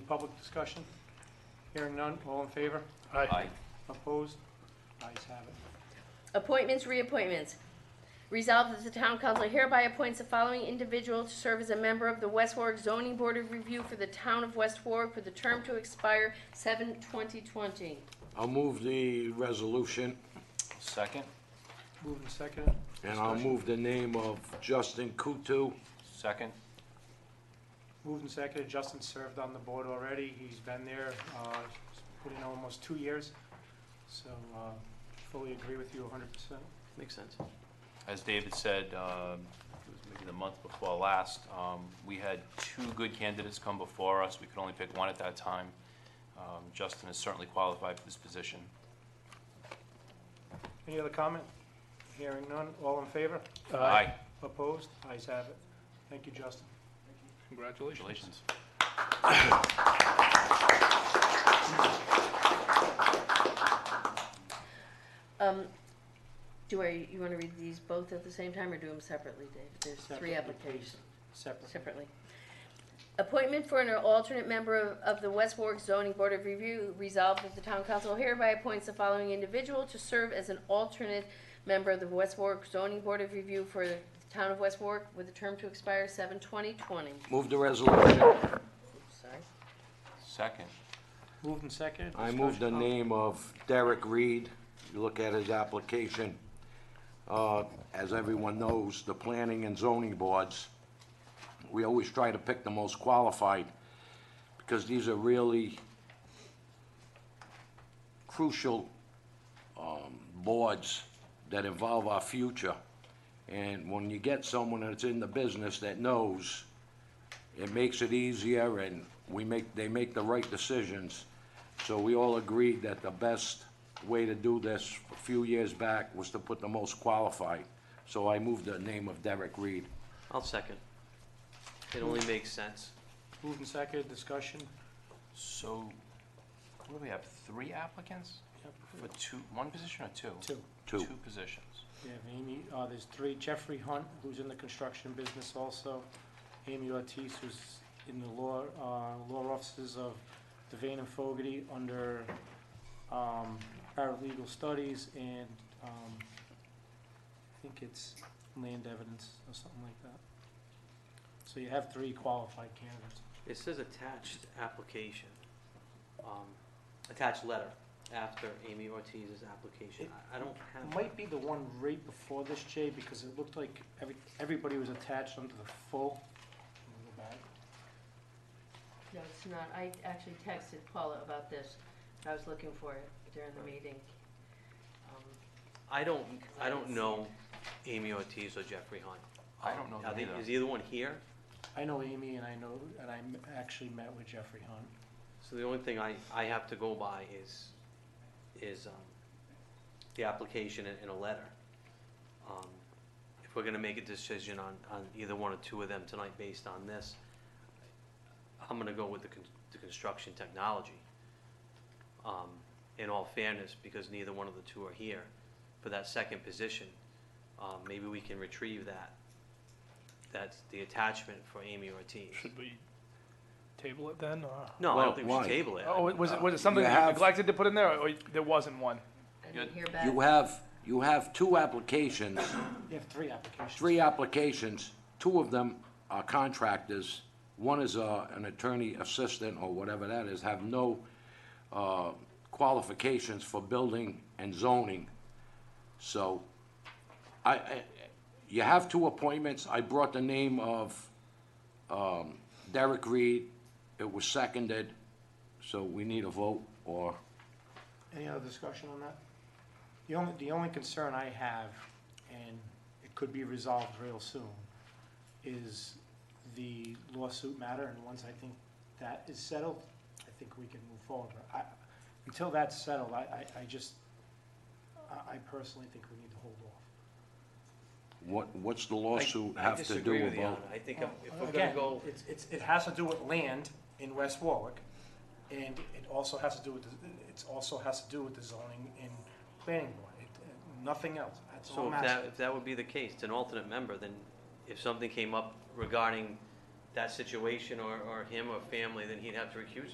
public discussion? Hearing none, all in favor? Aye. Opposed? Ayes have it. Appointments, reappointments. Resolved that the town council hereby appoints the following individual to serve as a member of the West Warwick Zoning Board of Review for the town of West Warwick for the term to expire 7/2020. I'll move the resolution, Second? Moved and seconded. and I'll Discussion. move the name of Justin Kutu. Second. Moved and seconded, Justin served on the board already, he's been there, uh, he's put in almost two years, so, uh, fully agree with you hundred percent. Makes sense. As David said, um, it was maybe the month before last, um, we had two good candidates come before us. We could only pick one at that time. Um, Justin is certainly qualified for this position. Any other comment? Hearing none, all in favor? Aye. Opposed? Ayes have it. Thank you, Justin. Congratulations. Congratulations. Um, Do I, you want to read these both at the same time or do them separately, Dave? There's three Separately, applications. please. Separate. Separately. Appointment for an alternate member of, of the West Warwick Zoning Board of Review resolved that the town council hereby appoints the following individual to serve as an alternate member of the West Warwick Zoning Board of Review for the town of West Warwick with a term to expire seven twenty twenty. Move the resolution. Sorry. Second. Moved and seconded. I move the Discussion? name of Derek Reed. You look at his application. Uh, As everyone knows, the planning and zoning boards, we always try to pick the most qualified because these are really crucial um, boards that involve our future. And when you get someone that's in the business that knows, it makes it easier and we make, they make the right decisions. So we all agreed that the best way to do this a few years back was to put the most qualified. So I moved the name of Derek Reed. I'll second. It only makes sense. Moved and seconded, discussion. So, what do we have, three applicants Yep. for two, one position or two? Two. Two. Two positions. Yeah, Amy, uh, there's three, Jeffrey Hunt, who's in the construction business also, Amy Ortiz, who's in the law, uh, law offices of Devane and Fogarty under, um, paralegal studies and, um, I think it's land evidence or something like that. So you have three qualified candidates. It says attached application, um, attached letter after Amy Ortiz's application. I I don't have. It might be the one right before this, Jay, because it looked like every, everybody was attached under the full. Let me go back. No, it's not. I actually texted Paula about this. I was looking for it during the meeting. Um, I don't, I don't know Amy Ortiz or Jeffrey Hunt. I don't know Are them they- either. Is either one here? I know Amy and I know, and I m- actually met with Jeffrey Hunt. So the only thing I, I have to go by is, is, um, the application and, and a letter. Um, If we're gonna make a decision on, on either one or two of them tonight based on this, I'm gonna go with the, con- the construction technology. Um, in all fairness, because neither one of the two are here, for that second position, um, maybe we can retrieve that. That's the attachment for Amy Ortiz. Should we table it then? or- No, I Well, don't think we why? should table it. Oh, was it, was it something Uh, You that you have- neglected to put in there, or or there wasn't one? I didn't hear You back. have, you have two applications, You have three applications. three applications. Two of them are contractors. One is uh, an attorney assistant or whatever that is, have no uh, qualifications for building and zoning. So I, I, you have two appointments. I brought the name of um, Derek Reed. It was seconded, so we need a vote or, Any other discussion on that? The only, the only concern I have, and it could be resolved real soon, is the lawsuit matter, and once I think that is settled, I think we can move forward. But I, until that's settled, I, I, I just, I, I personally think we need to hold off. what, what's the I- lawsuit I have to disagree do with you on about? it. I think if if we're gonna Oh, Again, go, it's, it's, it has to do with land in West Warwick, and it also has to do with, the- it also has to do with the zoning and planning board, it, nothing else, that's all so I'm if that, asking. if that would be the case, it's an alternate member, then if something came up regarding that situation or, or him or family, then he'd have to recuse